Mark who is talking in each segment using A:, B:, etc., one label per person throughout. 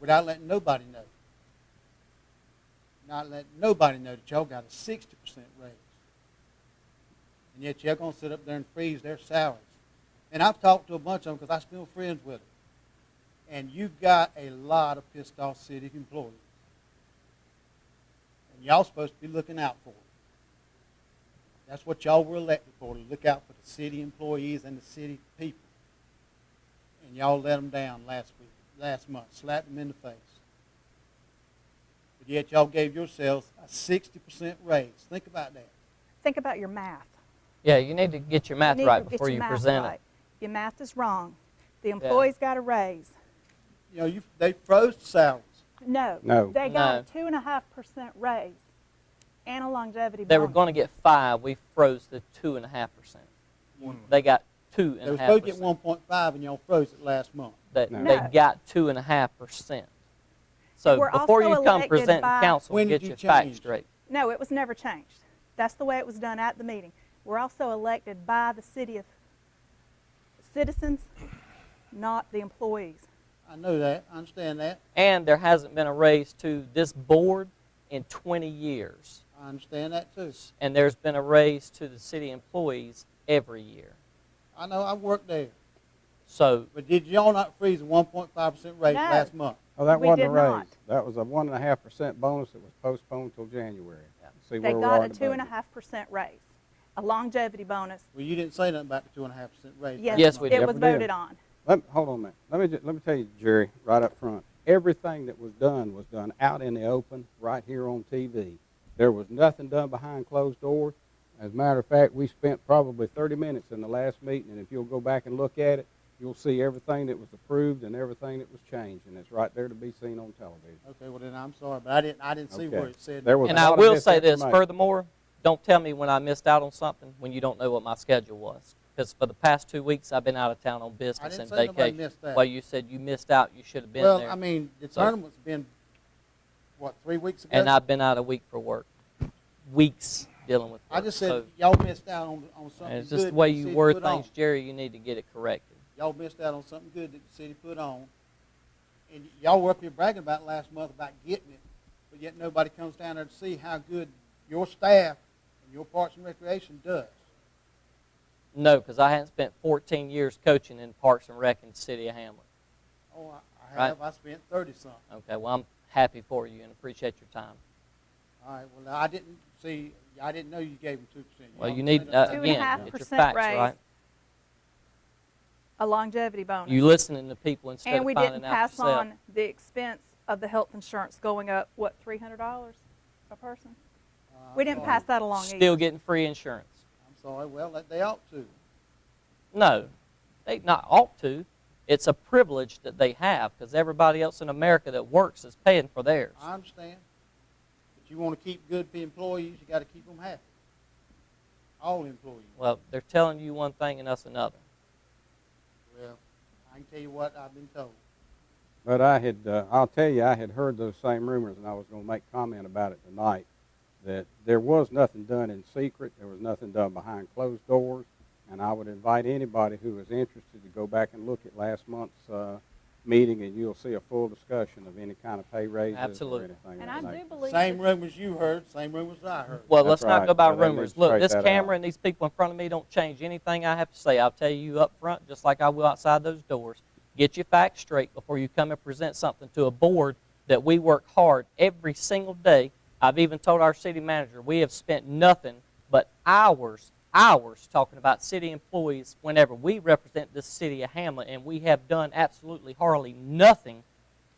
A: without letting nobody know. Not letting nobody know that y'all got a 60% raise. And yet y'all going to sit up there and freeze their salaries. And I've talked to a bunch of them because I'm still friends with them. And you've got a lot of pissed off city employees. And y'all supposed to be looking out for them. That's what y'all were elected for, to look out for the city employees and the city people. And y'all let them down last week, last month, slapped them in the face. But yet y'all gave yourselves a 60% raise. Think about that.
B: Think about your math.
C: Yeah, you need to get your math
B: need to
C: right
B: get
C: before
B: your
C: you
B: math
C: present
B: right.
C: it.
B: Your math is wrong. The employees got a raise.
A: You know, you, they froze salaries.
B: No.
D: No.
B: They got a two and a half percent raise and a longevity
C: They were
B: bonus.
C: going to get five. We froze the two and a half percent. They got two
A: They
C: and
A: were
C: a half
A: supposed to get
C: percent.
A: 1.5 and y'all froze it last month.
C: They,
D: No.
C: they
B: No.
C: got two and a half percent. So
B: We're
C: before
B: also
C: you come
B: elected
C: present
B: by-
C: in council,
A: When
C: get
A: did you
C: your facts
A: change?
C: straight.
B: No, it was never changed. That's the way it was done at the meeting. We're also elected by the city of citizens, not the employees.
A: I know that. I understand that.
C: And there hasn't been a raise to this board in 20 years.
A: I understand that too.
C: And there's been a raise to the city employees every year.
A: I know I worked there.
C: So
A: But did y'all not freeze a 1.5% raise
B: No.
A: last month?
D: Oh, that
B: We
D: wasn't a
B: did
D: raise.
B: not.
D: That was a one and a half percent bonus that was postponed till January.
C: Yeah.
D: See
B: They
D: where we
B: got
D: are
B: a
D: in the
B: two and a
D: budget.
B: half percent raise, a longevity bonus.
A: Well, you didn't say nothing about the 2.5% raise.
B: Yes,
A: last
C: Yes,
A: month.
C: we did.
B: it was
D: Never did.
B: voted on.
D: Let, hold on a minute. Let me, ju- let me tell you, Jerry, right up front, everything that was done was done out in the open, right here on TV. There was nothing done behind closed doors. As a matter of fact, we spent probably 30 minutes in the last meeting, and if you'll go back and look at it, you'll see everything that was approved and everything that was changed, and it's right there to be seen on television.
A: Okay, well then I'm sorry, but I didn't, I didn't see where
D: Okay.
A: it said.
D: There was
C: And
D: a
C: I
D: lot of
C: will say this,
D: misinformation.
C: furthermore, don't tell me when I missed out on something when you don't know what my schedule was. Because for the past two weeks, I've been out of town on business
A: didn't
C: and
A: say nobody
C: vacation.
A: missed that.
C: Well, you said you missed out, you should have been
A: Well,
C: there.
A: I mean, the
C: So-
A: tournament's been, what, three weeks ago?
C: and I've been out a week for work. Weeks dealing with
A: I
C: work.
A: just said,
C: So,
A: y'all missed out on, on
C: and
A: something
C: It's
A: good
C: just the
A: that
C: way
A: city
C: you word
A: put on.
C: things, Jerry, you need to get it corrected.
A: Y'all missed out on something good that the city put on. And y'all were up here bragging about last month about getting it, but yet nobody comes down there to see how good your staff and your Parks and Recreation does.
C: No, because I hadn't spent 14 years coaching in Parks and Rec in the city of Hamlet.
A: Oh, I- I
C: Right.
A: have, I spent thirty-something.
C: Okay, well, I'm happy for you and appreciate your time.
A: All right, well, I didn't see, I didn't know you gave them two percent.
C: Well, you need, uh,
B: Two and a half
C: again, get your
B: percent
C: facts
B: raise.
C: right.
B: A longevity bonus.
C: You listening to people instead
B: And
C: of
B: we
C: finding
B: didn't
C: out
B: pass
C: yourself.
B: on the expense of the health insurance going up, what, three hundred dollars a person? We didn't pass that along either.
C: still getting free insurance.
A: I'm Uh, sorry, well, that- they ought to.
C: No, they not ought to. It's a privilege that they have because everybody else in America that works is paying for theirs.
A: I understand. But you want to keep good employees, you got to keep them happy. All employees.
C: Well, they're telling you one thing and us another.
A: Well, I can tell you what I've been told.
D: But I had, uh, I'll tell you, I had heard those same rumors, and I was going to make comment about it tonight. That there was nothing done in secret, there was nothing done behind closed doors, and I would invite anybody who is interested to go back and look at last month's uh, meeting, and you'll see a full discussion of any kind of pay raises
C: Absolutely.
D: or
B: And
D: anything. of
B: I
D: that
B: do
D: nature.
B: believe.
A: Same
B: that-
A: rumors you heard, same rumors I heard.
C: Well, let's
D: That's
C: not
D: right.
C: go by
D: Yeah, they need to
C: rumors. Look,
D: straight
C: this
D: that
C: camera
D: out.
C: and these people in front of me don't change anything I have to say. I'll tell you up front, just like I will outside those doors. Get your facts straight before you come and present something to a board that we work hard every single day. I've even told our city manager we have spent nothing but hours, hours talking about city employees whenever we represent this city of Hamlet, and we have done absolutely hardly nothing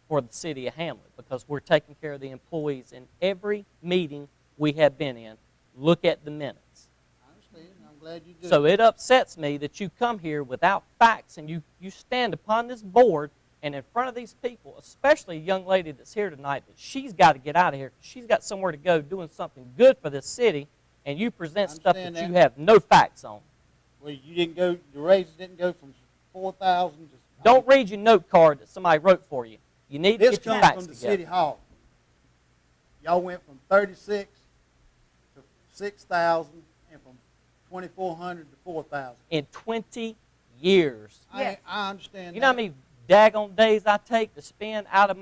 C: for the city of Hamlet because we're taking care of the employees in every meeting we have been in. Look at the minutes.
A: I understand, and I'm glad you did.
C: So it upsets me that you come here without facts and you, you stand upon this board and in front of these people, especially a young lady that's here tonight, that she's got to get out of here. 'cause She's got somewhere to go doing something good for this city, and you present stuff that,
A: Understand
C: you
A: that.
C: have no facts on.
A: Well, you didn't go, the raises didn't go from four thousand to.
C: Don't read your note card that somebody wrote for you. You need to
A: This
C: get your
A: comes
C: facts
A: from the
C: together.
A: city hall. Y'all went from thirty-six to six thousand and from twenty-four hundred to four thousand.
C: In 20 years,
A: I,
B: Yes.
A: I understand that.
C: You know how many daggone days I take to spend out of